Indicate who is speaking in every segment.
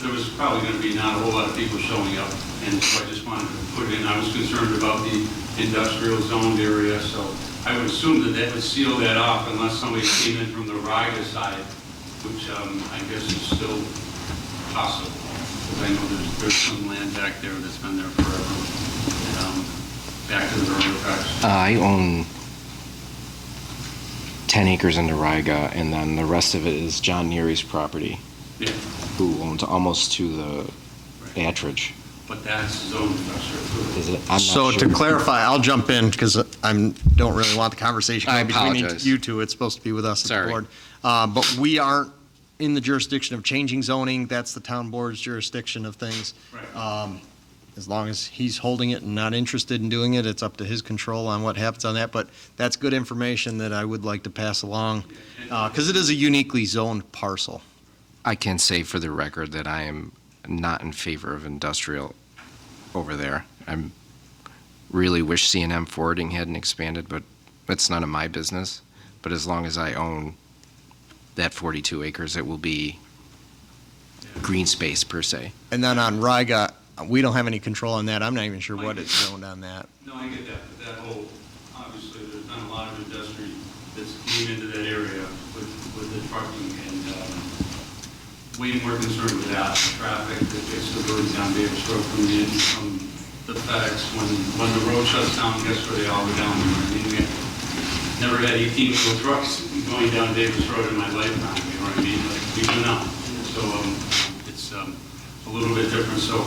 Speaker 1: there was probably going to be not a whole lot of people showing up, and so I just wanted to put it in. I was concerned about the industrial zoned area, so I would assume that that would seal that off unless somebody came in from the Riga side, which um, I guess is still possible, because I know there's, there's some land back there that's been there forever, um, back to the railroad tracks.
Speaker 2: Uh, I own 10 acres in Nariga, and then the rest of it is John Neary's property,
Speaker 1: Yeah,
Speaker 2: who owns almost to the Attridge,
Speaker 1: but that's zoned industrial.
Speaker 2: is it? I'm not
Speaker 3: So to
Speaker 2: sure.
Speaker 3: clarify, I'll jump in because I'm, don't really want the conversation.
Speaker 2: I
Speaker 3: between
Speaker 2: apologize.
Speaker 3: You two, it's supposed to be with us at
Speaker 2: Sorry.
Speaker 3: the board. Uh, But we aren't in the jurisdiction of changing zoning. That's the town board's jurisdiction of things.
Speaker 1: Right.
Speaker 3: Um, As long as he's holding it and not interested in doing it, it's up to his control on what happens on that. But that's good information that I would like to pass along because it is a uniquely zoned parcel.
Speaker 2: I can say for the record that I am not in favor of industrial over there. I'm, really wish C and M forwarding hadn't expanded, but it's none of my business. But as long as I own that 42 acres, it will be green space per se.
Speaker 3: And then on Riga, we don't have any control on that. I'm not even sure what it's zoned on that.
Speaker 1: No, I get that, but that whole, obviously, there's not a lot of industry that's came into that area with, with the trucking and, um, we were concerned with that, the traffic that gets diverted down Davis Road from the, from the FedEx. When, when the road shuts down, guess where they all go down? there? I mean, we Never had eighteen wheel trucks going down Davis Road in my lifetime, you know what I mean? Like, we do not. So, um, it's, um, a little bit different, so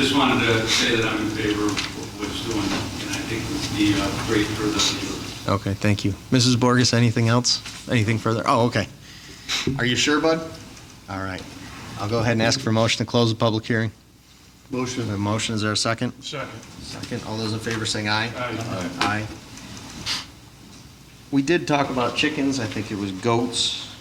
Speaker 1: just wanted to say that I'm in favor of what's doing, and I think it would be uh, great for the neighborhood.
Speaker 3: Okay, thank you. Mrs. Borges, anything else? Anything further? Oh, okay. Are you sure, bud? All right. I'll go ahead and ask for a motion to close the public hearing. Motion. A motion, is there a second?
Speaker 1: Second.
Speaker 3: Second. All those in favor saying aye?
Speaker 1: Aye.
Speaker 3: Aye. We did talk about chickens, I think it was goats,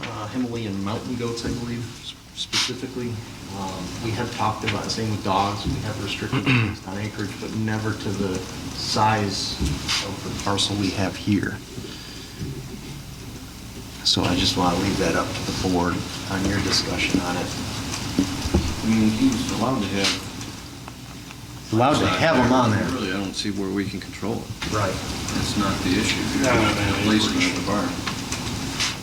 Speaker 3: uh, Himalayan mountain goats, I believe, s- specifically. Um, We have talked about, same with dogs, we have restricted things on acreage, but never to the size of the parcel we have here. So I just want to leave that up to the board on your discussion on it.
Speaker 4: I mean, he was allowed to have.
Speaker 3: Allowed to have them on there.
Speaker 4: Really, I don't see where we can control it.
Speaker 3: Right.
Speaker 4: That's not the issue. You're
Speaker 1: No, no,
Speaker 4: not
Speaker 1: no,
Speaker 4: the Placement of the barn.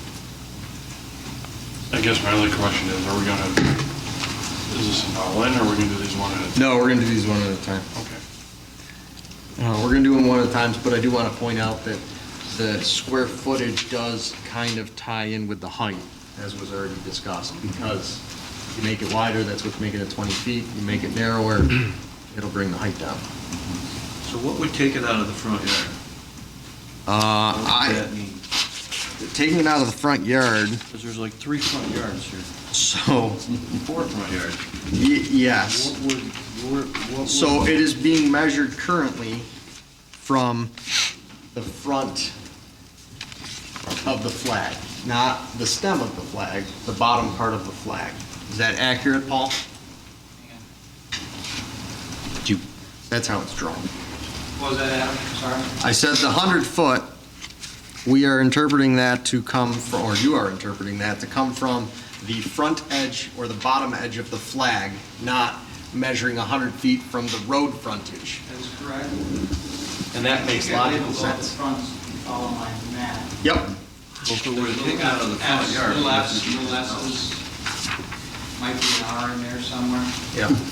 Speaker 5: I guess my only question is, are we gonna, is this an all-in, or are we gonna do these one at a time?
Speaker 3: No, we're going to do these one at a time.
Speaker 5: Okay.
Speaker 3: Uh, We're going to do them one at a time, but I do want to point out that the square footage does kind of tie in with the height, as was already discussed, because you make it wider, that's what's making it 20 feet, you make it narrower, it'll bring the height down.
Speaker 4: So what would take it out of the front yard? What would that mean?
Speaker 3: Uh, taking it out of the front yard,
Speaker 4: Because there's like three front yards here,
Speaker 3: so,
Speaker 4: four front yards.
Speaker 3: yes.
Speaker 4: What would, where- what would?
Speaker 3: So it is being measured currently from the front of the flag, not the stem of the flag, the bottom part of the flag. Is that accurate, Paul? Do- That's how it's drawn.
Speaker 6: What was that, Adam? Sorry?
Speaker 3: I said the 100-foot, we are interpreting that to come, fr- or you are interpreting that to come from the front edge or the bottom edge of the flag, not measuring 100 feet from the road frontage.
Speaker 6: That's correct.
Speaker 3: And that makes logical sense.
Speaker 6: Front, follow my map.
Speaker 3: Yep.
Speaker 4: If it were taken out of the front
Speaker 6: Abs-
Speaker 4: yard.
Speaker 6: Little
Speaker 4: what
Speaker 6: S,
Speaker 4: would it be?
Speaker 6: little S's. Might be an R in there somewhere.
Speaker 3: Yep.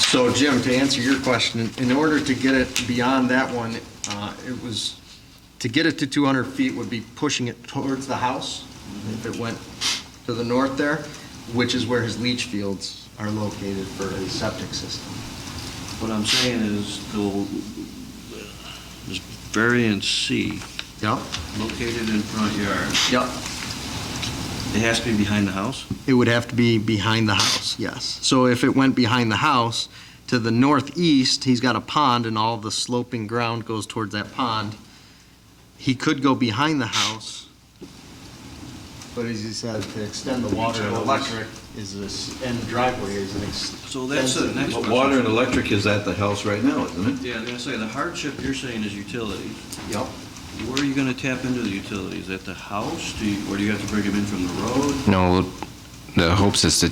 Speaker 3: So Jim, to answer your question, in order to get it beyond that one, uh, it was, to get it to 200 feet would be pushing it towards the house, if it went to the north there, which is where his leach fields are located for his septic system.
Speaker 4: What I'm saying is, the, this variance C,
Speaker 3: Yep.
Speaker 4: located in front yard,
Speaker 3: Yep.
Speaker 4: it has to be behind the house?
Speaker 3: It would have to be behind the house, yes. So if it went behind the house, to the northeast, he's got a pond, and all the sloping ground goes towards that pond. He could go behind the house. But as you said, to extend the water and electric is this, and driveway is an ex.
Speaker 4: So that's the next
Speaker 7: But
Speaker 4: question.
Speaker 7: Water and electric is at the house right now, isn't it?
Speaker 4: Yeah, I was gonna say, the hardship you're saying is utilities.
Speaker 3: Yep.
Speaker 4: Where are you gonna tap into the utilities? At the house? Do you, or do you have to bring them in from the road?
Speaker 2: No, the hopes is to